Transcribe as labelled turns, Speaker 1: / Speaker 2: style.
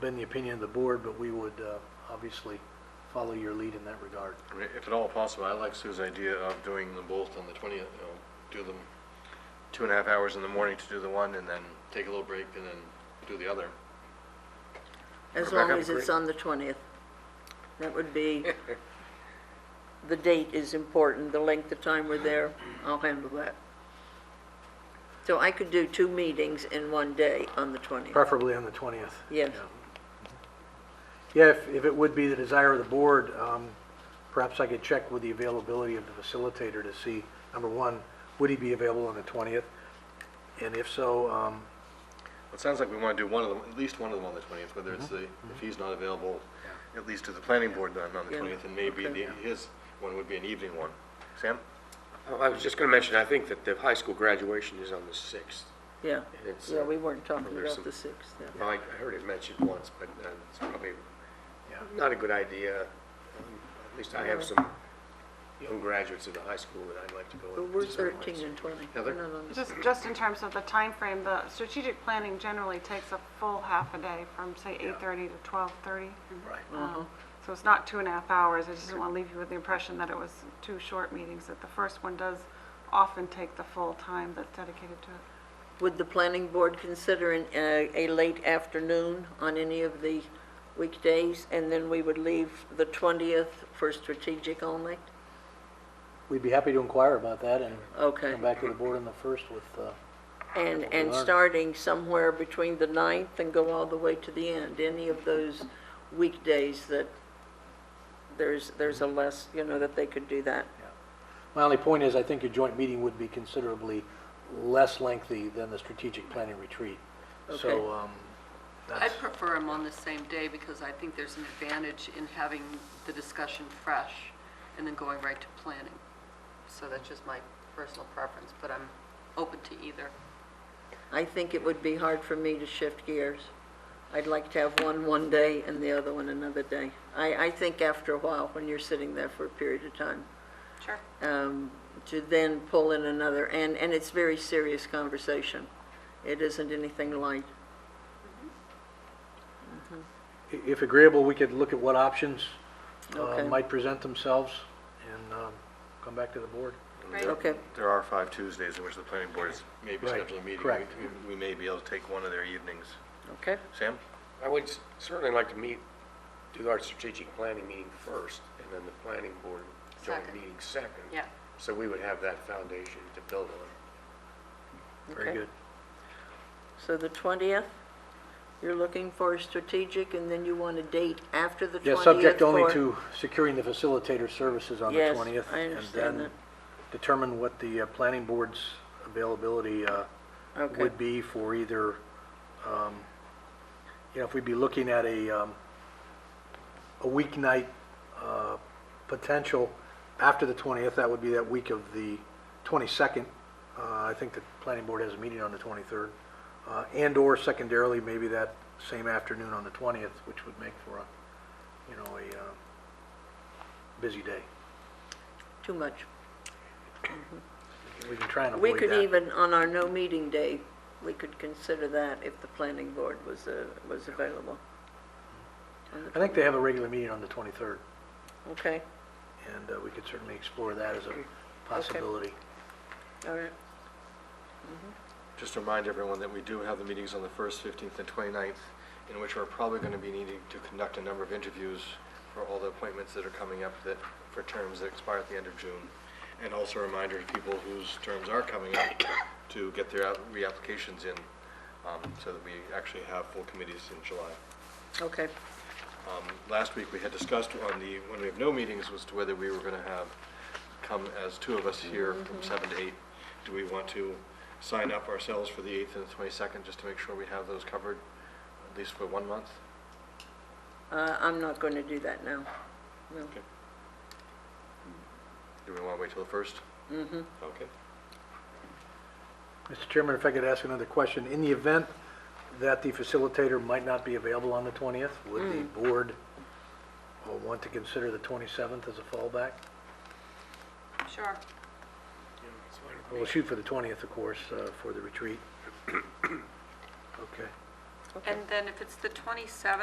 Speaker 1: been the opinion of the board, but we would uh, obviously follow your lead in that regard.
Speaker 2: I mean, If at all possible, I like Sue's idea of doing them both on the 20th, you know, do them two and a half hours in the morning to do the one, and then take a little break, and then do the other.
Speaker 3: As
Speaker 2: Rebecca,
Speaker 3: long as it's
Speaker 2: agree?
Speaker 3: on the 20th. That would be, the date is important, the length of time we're there, I'll handle that. So I could do two meetings in one day on the 20th.
Speaker 1: Preferably on the 20th.
Speaker 3: Yes.
Speaker 1: Yeah, if, if it would be the desire of the board, um, perhaps I could check with the availability of the facilitator to see, number one, would he be available on the 20th? And if so, um,
Speaker 2: It sounds like we want to do one of them, at least one of them on the 20th, whether it's the, if he's not available, at least to the planning board then on the
Speaker 3: Yeah.
Speaker 2: 20th, and maybe
Speaker 3: Okay.
Speaker 2: the- his one would be an evening one. Sam?
Speaker 4: Oh, I was just going to mention, I think that the high school graduation is on the 6th.
Speaker 3: Yeah,
Speaker 4: It's,
Speaker 3: yeah,
Speaker 4: uh,
Speaker 3: we weren't talking about
Speaker 4: there's some-
Speaker 3: the 6th, yeah.
Speaker 4: Well, I I heard it mentioned once, but uh, it's probably
Speaker 1: Yeah.
Speaker 4: not a good idea. Um, At least I have some young graduates of the high school that I'd like to go
Speaker 3: But
Speaker 4: with.
Speaker 3: we're
Speaker 4: So,
Speaker 3: 13 and 20.
Speaker 4: Heather?
Speaker 3: We're not on the-
Speaker 5: Just, just in terms of the time frame, the strategic planning generally takes a full half a day from, say, 8:30 to 12:30. Right. So it's not two and a half hours. I just didn't want to leave you with the impression that it was two short meetings, that the first one does often take the full time that's dedicated to it.
Speaker 3: Would the planning board consider an, uh, a late afternoon on any of the weekdays? And then we would leave the 20th for strategic only?
Speaker 1: we'd be happy to inquire about that and
Speaker 3: Okay.
Speaker 1: come back to the board on the 1st with, uh,
Speaker 3: And, and
Speaker 1: learn.
Speaker 3: starting somewhere between the 9th and go all the way to the end, any of those weekdays that there's, there's a less, you know, that they could do that.
Speaker 1: my only point is, I think your joint meeting would be considerably less lengthy than the strategic planning retreat.
Speaker 3: Okay.
Speaker 1: So, um,
Speaker 6: I
Speaker 1: that's,
Speaker 6: prefer them on the same day because I think there's an advantage in having the discussion fresh and then going right to planning. So that's just my personal preference, but I'm open to either.
Speaker 3: I think it would be hard for me to shift gears. I'd like to have one one day and the other one another day. I, I think after a while, when you're sitting there for a period of time,
Speaker 5: Sure.
Speaker 3: um, to then pull in another, and, and it's very serious conversation. It isn't anything light.
Speaker 1: i- if agreeable, we could look at what options uh,
Speaker 3: Okay.
Speaker 1: might present themselves and um, come back to the board.
Speaker 3: Okay,
Speaker 2: There are five Tuesdays in which the planning board is maybe
Speaker 1: Right,
Speaker 2: scheduling a meeting.
Speaker 1: correct.
Speaker 2: We- We may be able to take one of their evenings.
Speaker 3: okay.
Speaker 2: Sam?
Speaker 4: I would s- certainly like to meet, do our strategic planning meeting first, and then the planning board joint
Speaker 6: Second.
Speaker 4: meeting second.
Speaker 6: Yeah.
Speaker 4: So we would have that foundation to build on.
Speaker 1: Very
Speaker 3: Okay.
Speaker 1: good.
Speaker 3: So the 20th, you're looking for a strategic, and then you want a date after the 20th?
Speaker 1: Yeah, subject only
Speaker 3: for-
Speaker 1: to securing the facilitator services on the
Speaker 3: Yes,
Speaker 1: 20th.
Speaker 3: I understand
Speaker 1: And then
Speaker 3: that.
Speaker 1: determine what the uh, planning board's availability uh,
Speaker 3: Okay.
Speaker 1: would be for either, um, you know, if we'd be looking at a, um, a weeknight uh, potential after the 20th, that would be that week of the 22nd. Uh, I think the planning board has a meeting on the 23rd. uh, And/or secondarily, maybe that same afternoon on the 20th, which would make for a, you know, a uh, busy day.
Speaker 3: Too much.
Speaker 1: We can try and
Speaker 3: We
Speaker 1: avoid
Speaker 3: could
Speaker 1: that.
Speaker 3: even, on our no meeting day, we could consider that if the planning board was, uh, was available. On the
Speaker 1: I think they have a regular meeting on the 23rd,
Speaker 3: 20th. Okay,
Speaker 1: and uh, we could certainly explore that as a possibility.
Speaker 3: all right.
Speaker 2: Just to remind everyone that we do have the meetings on the 1st, 15th, and 29th, in which we're probably going to be needing to conduct a number of interviews for all the appointments that are coming up that, for terms that expire at the end of June. And also a reminder to people whose terms are coming up to get their out- reapplications in, um, so that we actually have full committees in July.
Speaker 3: Okay,
Speaker 2: Last week, we had discussed on the, when we have no meetings, was to whether we were going to have, come as two of us here from seven to eight. Do we want to sign up ourselves for the 8th and the 22nd, just to make sure we have those covered, at least for one month?
Speaker 3: uh, I'm not going to do that now. No.
Speaker 2: Do we want to wait till the 1st? Mm-hmm. Okay.
Speaker 1: Mr. Chairman, if I could ask another question, in the event that the facilitator might not be available on the 20th, would the board uh, want to consider the 27th as a fallback?
Speaker 5: Sure.
Speaker 1: We'll shoot for the 20th, of course, uh, for the retreat. Okay.
Speaker 6: And then if it's the 27th,